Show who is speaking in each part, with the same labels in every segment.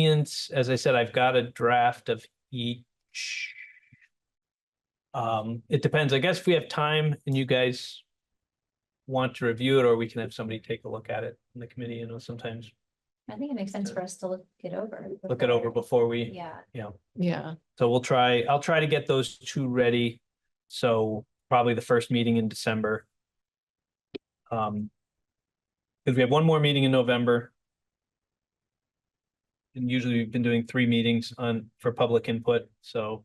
Speaker 1: Aliens, as I said, I've got a draft of each. Um, it depends, I guess if we have time and you guys want to review it, or we can have somebody take a look at it in the committee, you know, sometimes
Speaker 2: I think it makes sense for us to look it over.
Speaker 1: look it over
Speaker 2: before-
Speaker 1: before we,
Speaker 2: Yeah,
Speaker 1: you know,
Speaker 3: Yeah,
Speaker 1: so we'll try, I'll try to get those two ready. So probably the first meeting in December. Um, because we have one more meeting in November. And usually we've been doing three meetings on, for public input, so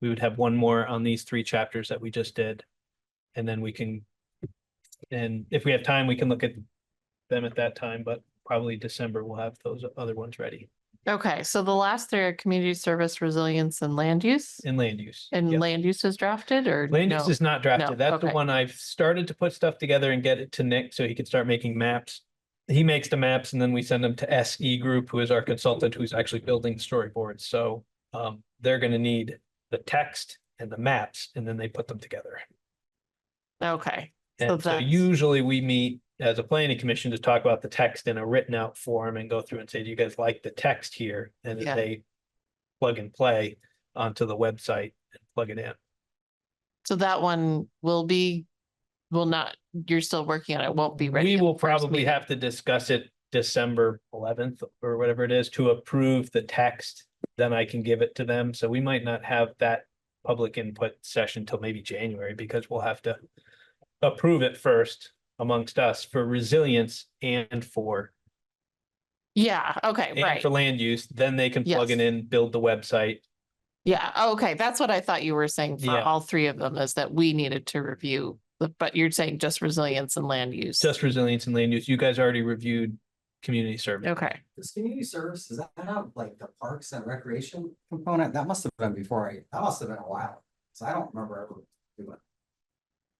Speaker 1: we would have one more on these three chapters that we just did. And then we can, and if we have time, we can look at them at that time, but probably December we'll have those other ones ready
Speaker 3: okay, so the last three are community service, resilience and land use?
Speaker 1: in land use.
Speaker 3: And
Speaker 1: Yep.
Speaker 3: land use is drafted or
Speaker 1: Land
Speaker 3: no?
Speaker 1: use is not drafted. That's the
Speaker 3: okay.
Speaker 1: one I've started to put stuff together and get it to Nick so he can start making maps. He makes the maps and then we send them to SE Group, who is our consultant, who's actually building the storyboards. So um, they're gonna need the text and the maps, and then they put them together.
Speaker 3: Okay, so
Speaker 1: And so
Speaker 3: that's,
Speaker 1: usually we meet as a planning commission to talk about the text in a written out form and go through and say, do you guys like the text here? And
Speaker 3: Yeah.
Speaker 1: then they plug and play onto the website and plug it in.
Speaker 3: so that one will be, will not, you're still working on it, won't be ready.
Speaker 1: We
Speaker 3: at the
Speaker 1: will
Speaker 3: first
Speaker 1: probably
Speaker 3: meeting.
Speaker 1: have to discuss it December eleventh or whatever it is to approve the text. Then I can give it to them. So we might not have that public input session till maybe January because we'll have to approve it first amongst us for resilience and for,
Speaker 3: Yeah, okay,
Speaker 1: and
Speaker 3: right.
Speaker 1: for land use. Then they can plug it
Speaker 3: Yes.
Speaker 1: in, build the website.
Speaker 3: Yeah, oh, okay, that's what I thought you were saying for
Speaker 1: Yeah.
Speaker 3: all three of them is that we needed to review, the- but you're saying just resilience and land use.
Speaker 1: Just resilience and land use. You guys already reviewed community service.
Speaker 3: Okay,
Speaker 4: This community service, is that not like the parks and recreation component? That must have been before I, that must have been a while. So I don't remember ever doing.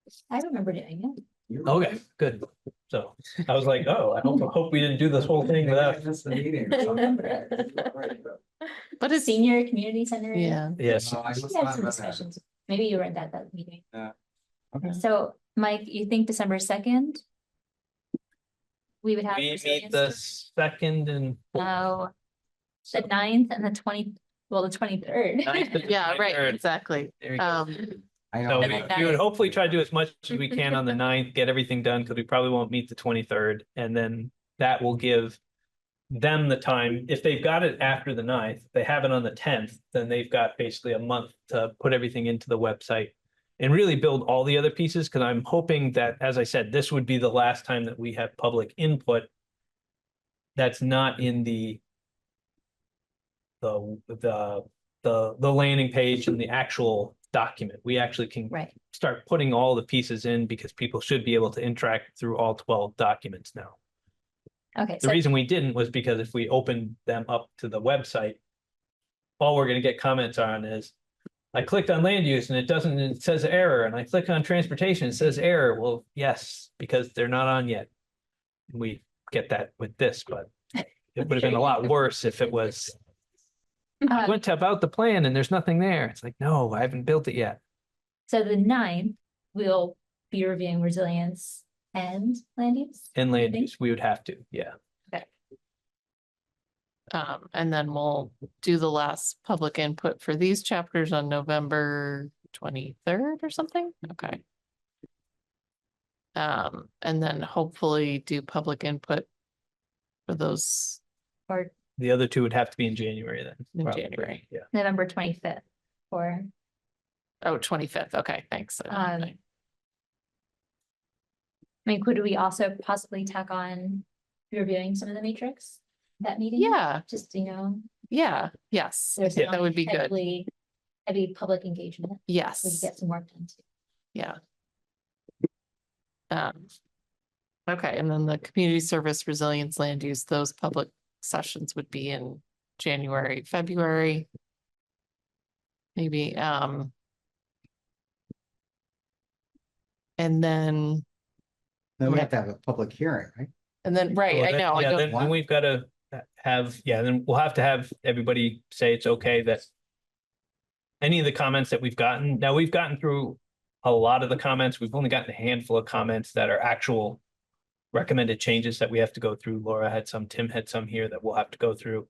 Speaker 4: it.
Speaker 2: I remember doing it.
Speaker 4: You remember?
Speaker 1: Okay, good. So I was like, oh, I hope, I hope we didn't do this whole thing
Speaker 4: Maybe
Speaker 1: without
Speaker 4: I missed the meeting or something. No,
Speaker 3: but it's,
Speaker 2: Senior community center.
Speaker 3: yeah,
Speaker 1: Yes,
Speaker 4: I
Speaker 2: We
Speaker 4: must
Speaker 2: had
Speaker 4: not
Speaker 2: some
Speaker 4: have read that.
Speaker 2: discussions. Maybe you weren't at that meeting.
Speaker 4: Yeah. Okay.
Speaker 2: So, Mike, you think December second? We would have.
Speaker 1: we meet
Speaker 2: resilience
Speaker 1: the
Speaker 2: to-
Speaker 1: second and. fourth.
Speaker 2: No, the ninth and the twenty, well, the twenty-third.
Speaker 1: Ninth and
Speaker 3: yeah, right,
Speaker 1: 23rd.
Speaker 3: exactly.
Speaker 1: There we go.
Speaker 3: Um,
Speaker 4: I
Speaker 1: So
Speaker 4: know.
Speaker 1: we- we would hopefully try to do as much as we can on the ninth, get everything done, because we probably won't meet the twenty-third, and then that will give them the time, if they've got it after the ninth, they have it on the tenth, then they've got basically a month to put everything into the website and really build all the other pieces, because I'm hoping that, as I said, this would be the last time that we have public input that's not in the the, the, the, the landing page and the actual document. We actually can
Speaker 2: Right,
Speaker 1: start putting all the pieces in because people should be able to interact through all twelve documents now.
Speaker 2: okay,
Speaker 1: The
Speaker 2: so,
Speaker 1: reason we didn't was because if we opened them up to the website, all we're gonna get comments on is, I clicked on land use and it doesn't, it says error, and I click on transportation, it says error. Well, yes, because they're not on yet. We get that with this, but it would have been a lot worse if it was,
Speaker 3: Uh-huh.
Speaker 1: I
Speaker 2: uh,
Speaker 1: went to about the plan and there's nothing there. It's like, no, I haven't built it yet.
Speaker 2: so the ninth, we'll be reviewing resilience and land use.
Speaker 1: In land
Speaker 3: Mm-hmm.
Speaker 2: Think-
Speaker 1: use, we would have to, yeah.
Speaker 3: um, and then we'll do the last public input for these chapters on November twenty-third or something, okay. Um, and then hopefully do public input for those
Speaker 2: Or
Speaker 1: The other two would have to be in January then.
Speaker 3: In
Speaker 1: probably.
Speaker 3: January.
Speaker 1: Yeah.
Speaker 2: November twenty-fifth, or
Speaker 3: Oh, 25th. Okay, thanks. I
Speaker 2: Um,
Speaker 3: didn't think.
Speaker 2: I mean, could we also possibly tack on reviewing some of the matrix? That meeting?
Speaker 3: Yeah,
Speaker 2: Just, you know.
Speaker 3: yeah, yes,
Speaker 2: there's
Speaker 3: that would be good.
Speaker 2: heavily- Heavy public engagement, we could
Speaker 3: yes,
Speaker 2: get some work done too.
Speaker 3: yeah. Um, okay, and then the community service resilience land use, those public sessions would be in January, February. Maybe, um. And then,
Speaker 4: Then we have to have a public hearing, right?
Speaker 3: and then, right,
Speaker 1: Well,
Speaker 3: I
Speaker 1: then-
Speaker 3: know, I
Speaker 1: yeah,
Speaker 3: don't-
Speaker 1: Then then we've got to have, yeah, then we'll have to have everybody say it's okay that any of the comments that we've gotten, now we've gotten through a lot of the comments. We've only gotten a handful of comments that are actual recommended changes that we have to go through. Laura had some, Tim had some here that we'll have to go through.